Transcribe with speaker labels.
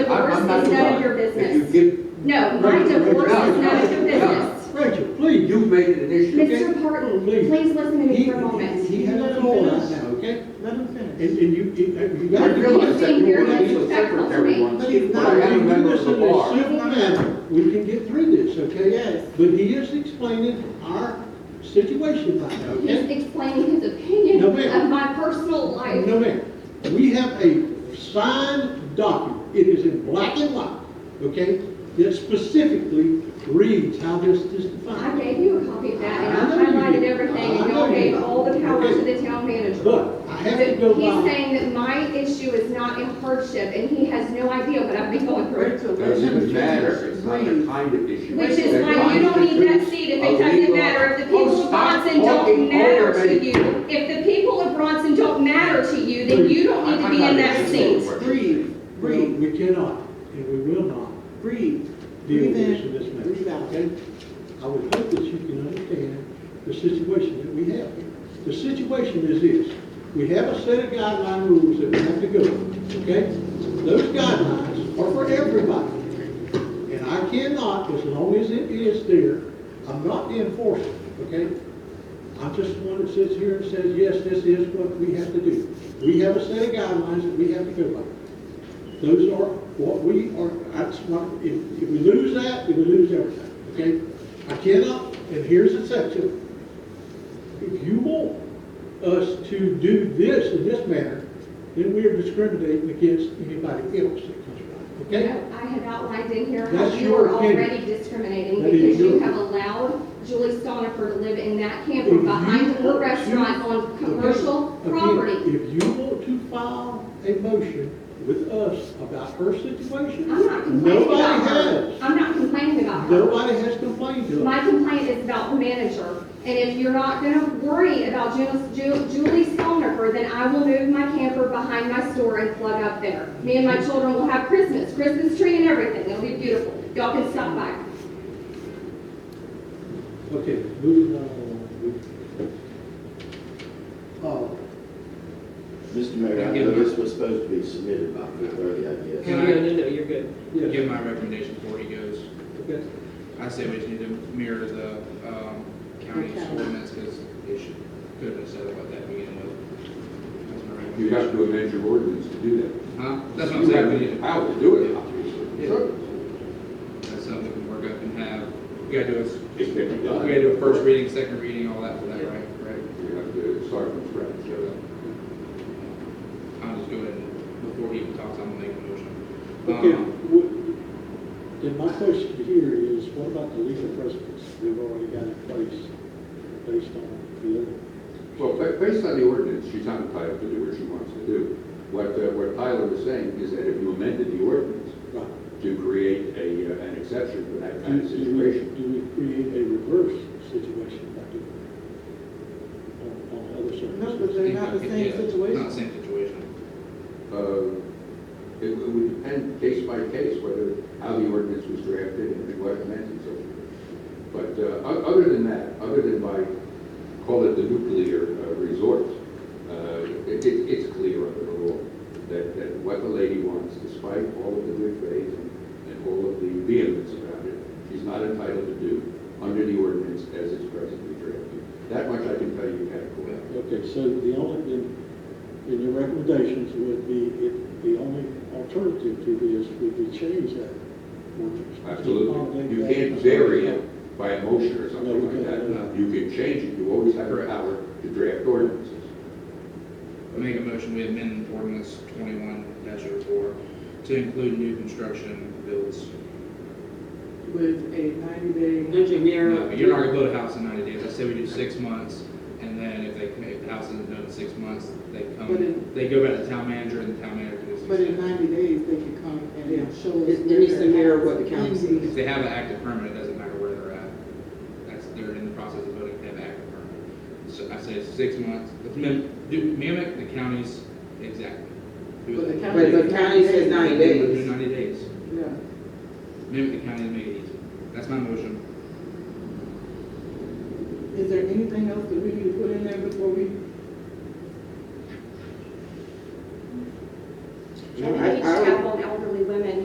Speaker 1: none of
Speaker 2: about
Speaker 1: your
Speaker 2: it.
Speaker 1: business.
Speaker 2: If you
Speaker 1: No,
Speaker 2: get.
Speaker 1: my
Speaker 2: Rachel,
Speaker 1: divorce
Speaker 2: Rachel,
Speaker 1: is none of your
Speaker 2: Rachel,
Speaker 1: business.
Speaker 2: Rachel, please, you made it an issue, okay?
Speaker 1: Mr. Parton,
Speaker 2: Please.
Speaker 1: please listen to me
Speaker 2: He-
Speaker 1: for a moment.
Speaker 2: He has a floor right now, okay?
Speaker 3: Let him
Speaker 2: And,
Speaker 3: finish.
Speaker 2: and you, you, you
Speaker 1: I
Speaker 2: gotta
Speaker 1: realize
Speaker 2: realize
Speaker 1: that
Speaker 2: that
Speaker 1: you
Speaker 2: you
Speaker 1: were
Speaker 2: were
Speaker 1: being very
Speaker 2: legal
Speaker 1: legal disrespectful to secretary
Speaker 2: secretary
Speaker 1: me. once.
Speaker 2: once.
Speaker 3: But he's not-
Speaker 2: I am a member of
Speaker 3: Listen
Speaker 2: the
Speaker 3: to
Speaker 2: bar.
Speaker 3: Sue.
Speaker 2: Civil matter, we can get through this, okay?
Speaker 3: Yes.
Speaker 2: But he is explaining our situation right now, okay?
Speaker 1: He's explaining his opinion
Speaker 2: No, ma'am.
Speaker 1: of my personal life.
Speaker 2: No, ma'am. We have a signed document. It is in black and white, okay? That specifically reads how this is
Speaker 1: I
Speaker 2: defined.
Speaker 1: gave you a copy of that, and I
Speaker 2: I know you
Speaker 1: highlighted
Speaker 2: did.
Speaker 1: everything,
Speaker 2: I
Speaker 1: and y'all
Speaker 2: know you
Speaker 1: gave
Speaker 2: did.
Speaker 1: all the power to
Speaker 2: Okay.
Speaker 1: the town manager.
Speaker 2: But I have to go
Speaker 1: But He's
Speaker 2: by,
Speaker 1: saying that my issue is not a hardship, and he has no idea what I've been going through.
Speaker 3: Rachel, let him
Speaker 2: Doesn't
Speaker 3: finish.
Speaker 2: matter. It's
Speaker 3: Please.
Speaker 4: kind of issue.
Speaker 1: Which is
Speaker 4: that
Speaker 1: why you don't need that
Speaker 4: constitutes
Speaker 1: seat if
Speaker 4: a
Speaker 1: it doesn't
Speaker 4: legal-
Speaker 1: matter, if the
Speaker 4: Oh,
Speaker 1: people of
Speaker 4: stop
Speaker 1: Bronson don't
Speaker 4: talking
Speaker 1: matter
Speaker 4: over
Speaker 1: to
Speaker 4: me.
Speaker 1: you, if the people of Bronson don't matter to you, then you don't need to
Speaker 4: I'm
Speaker 1: be
Speaker 4: not
Speaker 1: in that
Speaker 4: interested in
Speaker 1: seat.
Speaker 4: what you're saying.
Speaker 3: Breathe,
Speaker 2: we
Speaker 3: breathe,
Speaker 2: we cannot and we will not
Speaker 3: breathe.
Speaker 2: deal with
Speaker 3: Breathe
Speaker 2: this in this
Speaker 3: in, breathe
Speaker 2: manner,
Speaker 3: out.
Speaker 2: okay? I would hope that you can understand the situation that we have here. The situation is this, we have a set of guideline rules that we have to go, with, okay? Those guidelines are for everybody. And I cannot, as long as it is there, I'm not the enforcer, okay? I'm just one that sits here and says, yes, this is what we have to do. We have a set of guidelines that we have to go by. Those are what we are, that's what, if, if we lose that, then we lose everything, okay? I cannot, and here's the section. If you want us to do this in this manner, then we are discriminating against anybody else that comes around,
Speaker 1: No,
Speaker 2: okay?
Speaker 1: I have outlined in here how
Speaker 2: That's
Speaker 1: you
Speaker 2: your
Speaker 1: are
Speaker 2: opinion.
Speaker 1: already discriminating
Speaker 2: That is
Speaker 1: because you
Speaker 2: your-
Speaker 1: have allowed Julie Stonifer to live in that camper
Speaker 2: If you
Speaker 1: behind her
Speaker 2: want to-
Speaker 1: restaurant on commercial
Speaker 2: Again,
Speaker 1: property.
Speaker 2: If you want to file a motion with us about her situation,
Speaker 1: I'm not complaining
Speaker 2: nobody
Speaker 1: about her.
Speaker 2: has.
Speaker 1: I'm not complaining about her.
Speaker 2: Nobody has complained to us.
Speaker 1: My complaint is about the manager. And if you're not gonna worry about Ju- Ju- Julie Stonifer, then I will move my camper behind my store and plug up there. Me and my children will have Christmas, Christmas tree and everything. It'll be beautiful. Y'all can stop by.
Speaker 2: Okay, moving on. along.
Speaker 5: Mr. Mayor, I know this was supposed to be submitted by four thirty, I
Speaker 6: Can
Speaker 5: guess.
Speaker 6: I-
Speaker 3: No, no, no, you're good.
Speaker 2: Uh,
Speaker 6: give
Speaker 2: yes,
Speaker 6: my recommendation before he goes.
Speaker 2: okay.
Speaker 6: I say we just need to mirror the um, county's
Speaker 3: Okay.
Speaker 6: ordinance because it should, could have said about that to begin with. That's my
Speaker 4: You
Speaker 6: recommendation.
Speaker 4: have to amend your ordinance to do that.
Speaker 6: Huh? That's what I'm saying, we need to-
Speaker 4: How to do it, obviously.
Speaker 6: Yeah. that's something we can work up and have, we gotta do a, s-
Speaker 4: It can be
Speaker 6: we
Speaker 4: done.
Speaker 6: gotta do a first reading, second reading, all that for that, right? Right?
Speaker 4: You have to start from scratch. so.
Speaker 6: I'll just go ahead and, before he even talks, I'm gonna make a motion.
Speaker 2: Okay,
Speaker 6: Um,
Speaker 2: w- then my question here is, what about the legal precedence we've already got in place based on the other?
Speaker 4: Well, ba- based on the ordinance, she's not entitled to do what she wants to do. What, uh, what Tyler was saying is that if you amended the ordinance
Speaker 2: Right.
Speaker 4: to create a, uh, an exception for that
Speaker 2: Do
Speaker 4: kind of situation,
Speaker 2: do we create a reverse situation by doing it on, on other
Speaker 3: No,
Speaker 2: circumstances?
Speaker 3: because they're not the
Speaker 6: Yeah,
Speaker 3: same
Speaker 6: Not the
Speaker 3: situation.
Speaker 6: same situation.
Speaker 4: uh, it it would depend case by case whether, how the ordinance was drafted and what amendments so forth. But uh, o- other than that, other than by, call it the nuclear uh, resort, uh, it- it- it's clear under the law that that what the lady wants, despite all of the good faith and and all of the vehemence about it, she's not entitled to do under the ordinance as it's presently drafted. That much I can tell you categorically.
Speaker 2: Okay, so the only, then, then your recommendations would be, if the only alternative to this would be change that ordinance.
Speaker 4: Absolutely. You
Speaker 2: Accommodate that.
Speaker 4: can't vary it by a motion or
Speaker 2: No, we
Speaker 4: something like
Speaker 2: can't, no.
Speaker 4: that. You can change it, you always have the power to draft ordinances.
Speaker 6: I make a motion, we amend ordinance twenty-one 4 to include new construction builds.
Speaker 3: With a ninety day,
Speaker 6: No,
Speaker 7: engineer.
Speaker 6: but you're not gonna build a house in ninety days, I say we do six months, and then if they, if the house isn't done in six months, they
Speaker 3: But in-
Speaker 6: come, they go back to the town manager, and the town manager does.
Speaker 3: but in ninety days, they can come and show us.
Speaker 7: It- it needs to mirror what the
Speaker 3: where
Speaker 7: council
Speaker 3: they're at.
Speaker 6: If they have an active permit, it doesn't matter where they're at, that's, they're in the process of building, they have an active permit. So I say six months, Let's mim- do- mimic the county's exactly. Do
Speaker 3: But the
Speaker 6: it.
Speaker 3: county-
Speaker 7: But the county says ninety
Speaker 6: Do
Speaker 7: days.
Speaker 6: ninety days,
Speaker 3: Yeah.
Speaker 6: mimic the county and make it easy, that's my motion.
Speaker 3: Is there anything else that we need to put in there before we?
Speaker 7: I